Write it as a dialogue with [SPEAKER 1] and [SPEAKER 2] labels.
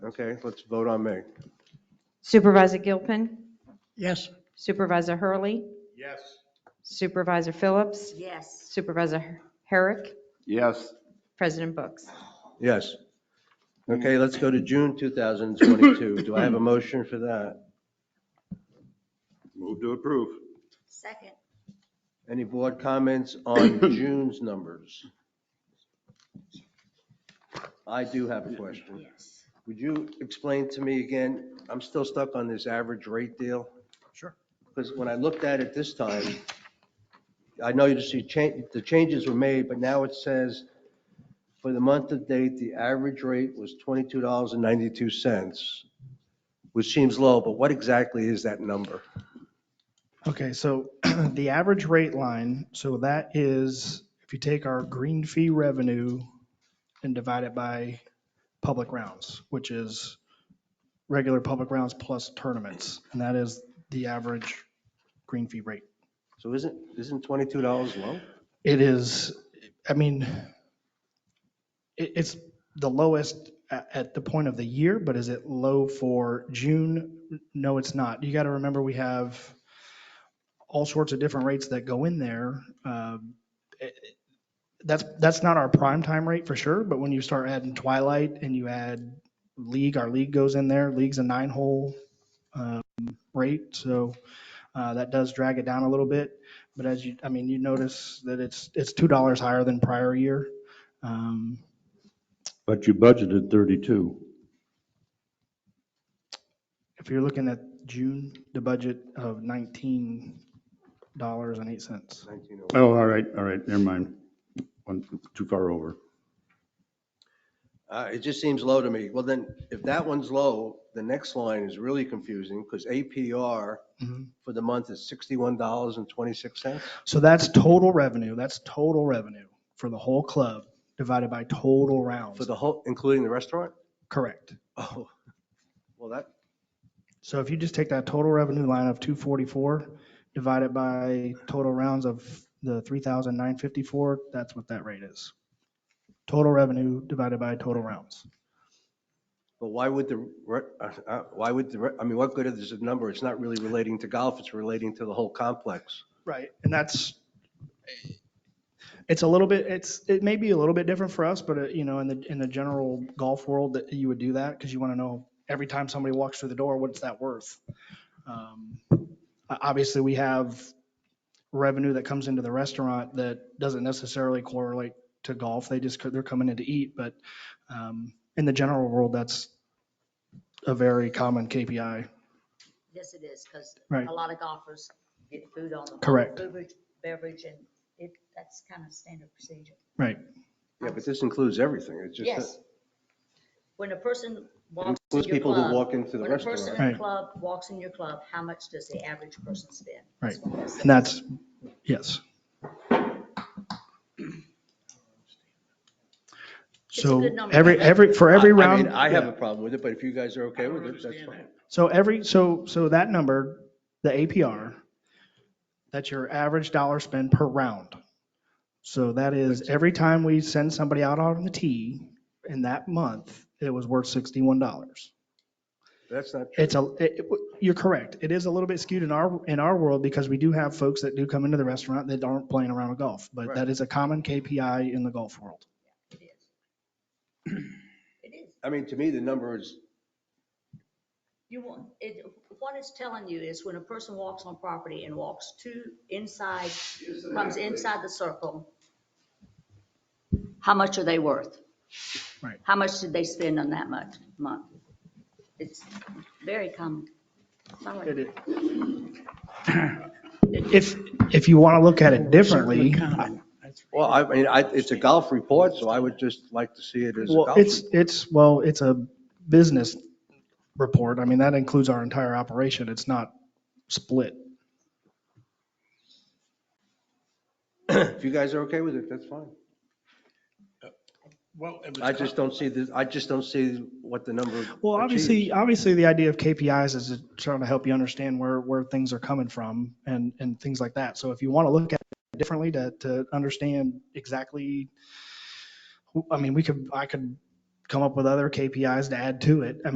[SPEAKER 1] Okay, let's vote on May.
[SPEAKER 2] Supervisor Gilpin,
[SPEAKER 3] Yes.
[SPEAKER 2] Supervisor Hurley,
[SPEAKER 1] Yes.
[SPEAKER 2] Supervisor Phillips,
[SPEAKER 4] Yes.
[SPEAKER 2] Supervisor Herrick,
[SPEAKER 5] Yes.
[SPEAKER 2] President Books.
[SPEAKER 1] Yes. Okay, let's go to June 2022. Do I have a motion for that?
[SPEAKER 5] Move to approve.
[SPEAKER 4] Second.
[SPEAKER 1] Any board comments on June's numbers? I do have a question.
[SPEAKER 4] Yes.
[SPEAKER 1] Would you explain to me again, I'm still stuck on this average rate deal?
[SPEAKER 3] Sure.
[SPEAKER 1] Because when I looked at it this time, I know you see change, the changes were made, but now it says for the month of date, the average rate was twenty-two dollars and ninety-two cents, which seems low, but what exactly is that number?
[SPEAKER 3] Okay, so the average rate line, so that is, if you take our green fee revenue and divide it by public rounds, which is regular public rounds plus tournaments, and that is the average green fee rate.
[SPEAKER 1] So isn't, isn't twenty-two dollars low?
[SPEAKER 3] It is, I mean, it, it's the lowest at, at the point of the year, but is it low for June? No, it's not. You got to remember, we have all sorts of different rates that go in there. Um, it- it- That's, that's not our prime time rate for sure, but when you start adding Twilight and you add League, our league goes in there, League's a nine-hole um, rate, so uh, that does drag it down a little bit. But as you, I mean, you notice that it's, it's $2 higher than prior year. Um,
[SPEAKER 6] But you budgeted 32.
[SPEAKER 3] If you're looking at June, the budget of $19.08.
[SPEAKER 1] Nineteen oh.
[SPEAKER 6] Oh, all right, all right, never mind. One, too far over.
[SPEAKER 1] Uh, It just seems low to me. Well, then, if that one's low, the next line is really confusing because APR
[SPEAKER 3] Mhm.
[SPEAKER 1] for the month is $61.26.
[SPEAKER 3] So that's total revenue, that's total revenue for the whole club divided by total
[SPEAKER 1] For
[SPEAKER 3] rounds.
[SPEAKER 1] the whole, including the restaurant?
[SPEAKER 3] Correct.
[SPEAKER 1] Oh, well, that,
[SPEAKER 3] So if you just take that total revenue line of 244 divided by total rounds of the 3,954, that's what that rate is. Total revenue divided by total rounds.
[SPEAKER 1] but why would the, re- uh, uh, why would the, re- I mean, what good is the number? It's not really relating to golf, it's relating to the whole complex.
[SPEAKER 3] Right, and that's, it's a little bit, it's, it may be a little bit different for us, but, uh, you know, in the, in the general golf world, that you would do that, because you want to know every time somebody walks through the door, what's that worth? Um, o- Obviously, we have revenue that comes into the restaurant that doesn't necessarily correlate to golf, they just, they're coming in to eat, but um, in the general world, that's a very common KPI.
[SPEAKER 4] Yes, it is, because
[SPEAKER 3] Right.
[SPEAKER 4] a lot of golfers get food on the.
[SPEAKER 3] Correct.
[SPEAKER 4] Beverage, beverage, and it, that's kind of standard procedure.
[SPEAKER 3] Right,
[SPEAKER 1] Yeah, but this includes everything. It's just,
[SPEAKER 4] Yes.
[SPEAKER 1] that-
[SPEAKER 4] When a person walks in your
[SPEAKER 1] includes
[SPEAKER 4] club.
[SPEAKER 1] people who walk into the
[SPEAKER 4] When a person
[SPEAKER 1] restaurant.
[SPEAKER 4] in
[SPEAKER 3] Right.
[SPEAKER 4] a club walks in your club, how much does the average person spend?
[SPEAKER 3] Right.
[SPEAKER 4] That's what that says.
[SPEAKER 3] and that's, yes.
[SPEAKER 4] It's a
[SPEAKER 3] So
[SPEAKER 4] good number.
[SPEAKER 3] every, every, for every
[SPEAKER 1] I- I mean,
[SPEAKER 3] round.
[SPEAKER 1] I
[SPEAKER 3] yeah.
[SPEAKER 1] have a problem with it, but if you guys are okay with it, that's fine.
[SPEAKER 3] So every, so, so that number, the APR, that's your average dollar spend per round. So that is, every time we send somebody out on the tee in that month, it was worth $61.
[SPEAKER 1] That's not true.
[SPEAKER 3] It's a, it- it- you're correct. It is a little bit skewed in our, in our world because we do have folks that do come into the restaurant that aren't playing around with golf, but that
[SPEAKER 1] Right.
[SPEAKER 3] is a common KPI in the golf world.
[SPEAKER 4] It is. It is.
[SPEAKER 1] I mean, to me, the number is,
[SPEAKER 4] You want, it, what it's telling you is when a person walks on property and walks to inside, comes inside the circle, how much are they worth?
[SPEAKER 3] Right.
[SPEAKER 4] How much did they spend on that much, month? It's very common. Someone-
[SPEAKER 3] It is- If, if you want to look at it differently,
[SPEAKER 1] well, I mean, I, it's a golf report, so I would just like to see it as a golf.
[SPEAKER 3] Well, it's,
[SPEAKER 1] report.
[SPEAKER 3] it's, well, it's a business report. I mean, that includes our entire operation. It's not split.
[SPEAKER 1] If you guys are okay with it, that's fine.
[SPEAKER 7] Well, it was
[SPEAKER 1] I just don't see this, I just don't see what the number.
[SPEAKER 3] Well,
[SPEAKER 1] achieves.
[SPEAKER 3] obviously, obviously, the idea of KPIs is to try to help you understand where, where things are coming from and, and things like that. So if you want to look at it differently to, to understand exactly, I mean, we could, I could come up with other KPIs to add to it. I